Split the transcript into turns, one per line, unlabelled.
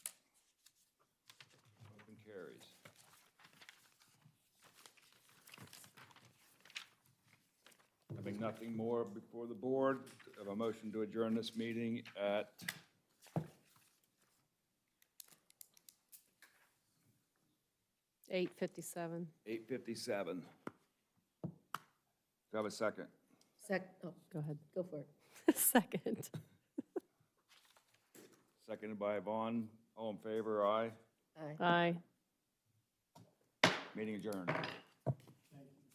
carries. Having nothing more before the board, have a motion to adjourn this meeting at
Eight fifty-seven.
eight fifty-seven. Do I have a second?
Sec, oh,
Go ahead.
go for it.
Second.
Seconded by Vaughn, all in favor, aye.
Aye.
Aye.
Meeting adjourned.